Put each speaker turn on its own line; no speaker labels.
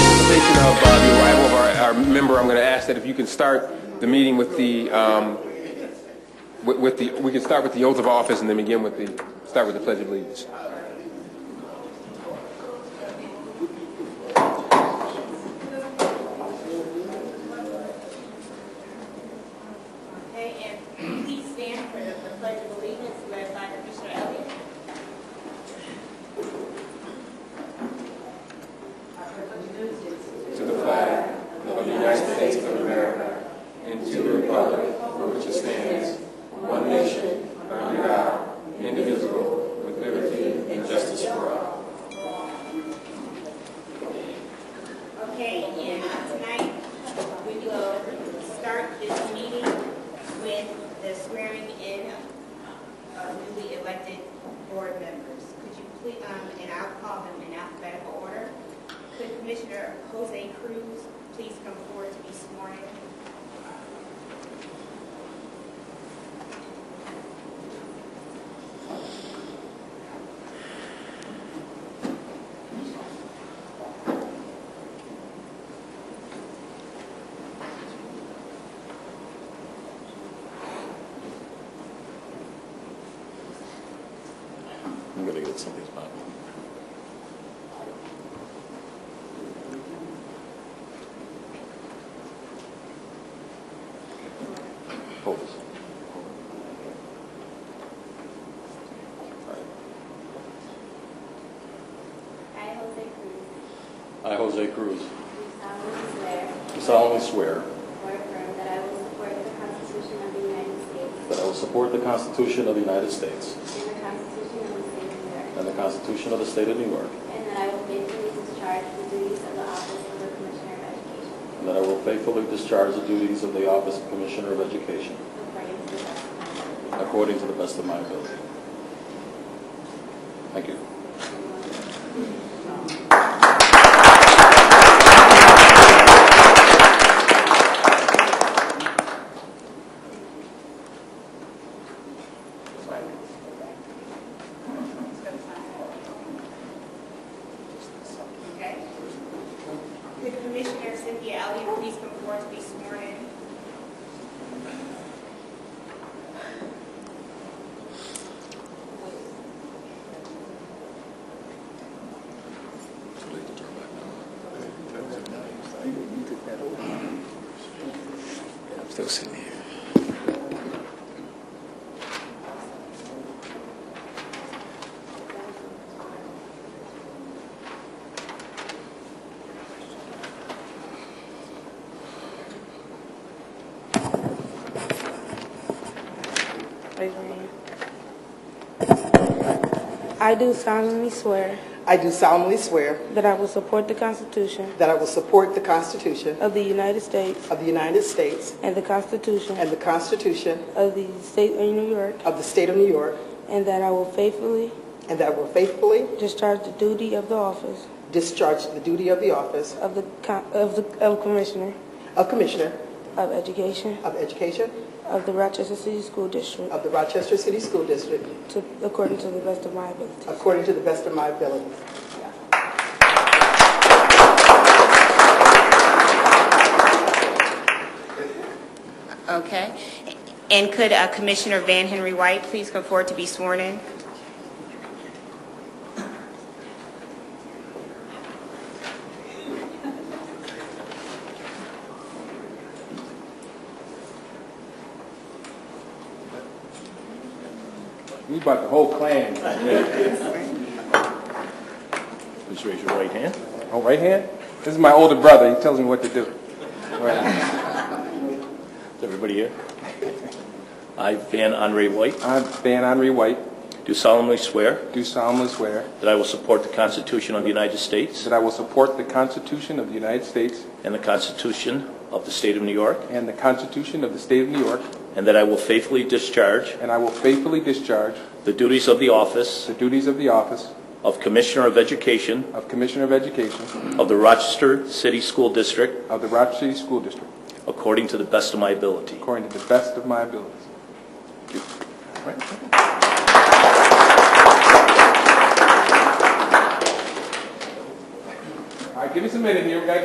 anticipation of uh, the arrival of our, our member, I'm going to ask that if you can start the meeting with the, um, with with the, we can start with the oath of office and then begin with the, start with the pledge of allegiance.
Okay, and please stand for the pledge of allegiance led by Commissioner Elliott. Okay, and tonight, we will start this meeting with the swearing in of uh, newly elected board members. Could you please, um, and I'll call them in alphabetical order. Could Commissioner Jose Cruz please come forward to be sworn in?
I'm gonna get somebody's Bible. Hold this.
I, Jose Cruz,
I, Jose Cruz,
do solemnly swear
do solemnly swear
or affirm that I will support the Constitution of the United States
that I will support the Constitution of the United States
and the Constitution of the State of New York,
and the Constitution of the State of New York,
and that I will faithfully discharge the duties of the Office of the Commissioner of Education
and that I will faithfully discharge the duties of the Office of Commissioner of Education
according to the best of my ability.
according to the best of my ability. Thank you.
Okay. Could Commissioner Cynthia Elliott please come forward to be sworn in?
I'm still sitting here.
Raise your hand. I do solemnly swear
I do solemnly swear
that I will support the Constitution
that I will support the Constitution
of the United States
of the United States
and the Constitution
and the Constitution
of the State of New York,
of the State of New York,
and that I will faithfully
and that I will faithfully
discharge the duty of the office
discharge the duty of the office
of the co- of the of Commissioner
of Commissioner
of Education
of Education
of the Rochester City School District
of the Rochester City School District
to, according to the best of my ability.
according to the best of my ability.
Okay. And could uh, Commissioner Van Henry White please come forward to be sworn in?
We brought the whole clan.
Please raise your right hand.
Oh, right hand? This is my older brother, he tells me what to do.
Is everybody here? I, Van Andre White,
I, Van Henry White,
do solemnly swear
do solemnly swear
that I will support the Constitution of the United States
that I will support the Constitution of the United States
and the Constitution of the State of New York,
and the Constitution of the State of New York,
and that I will faithfully discharge
and I will faithfully discharge
the duties of the office
the duties of the office
of Commissioner of Education
of Commissioner of Education
of the Rochester City School District
of the Rochester City School District
according to the best of my ability.
according to the best of my abilities. All right, give us a minute here, we gotta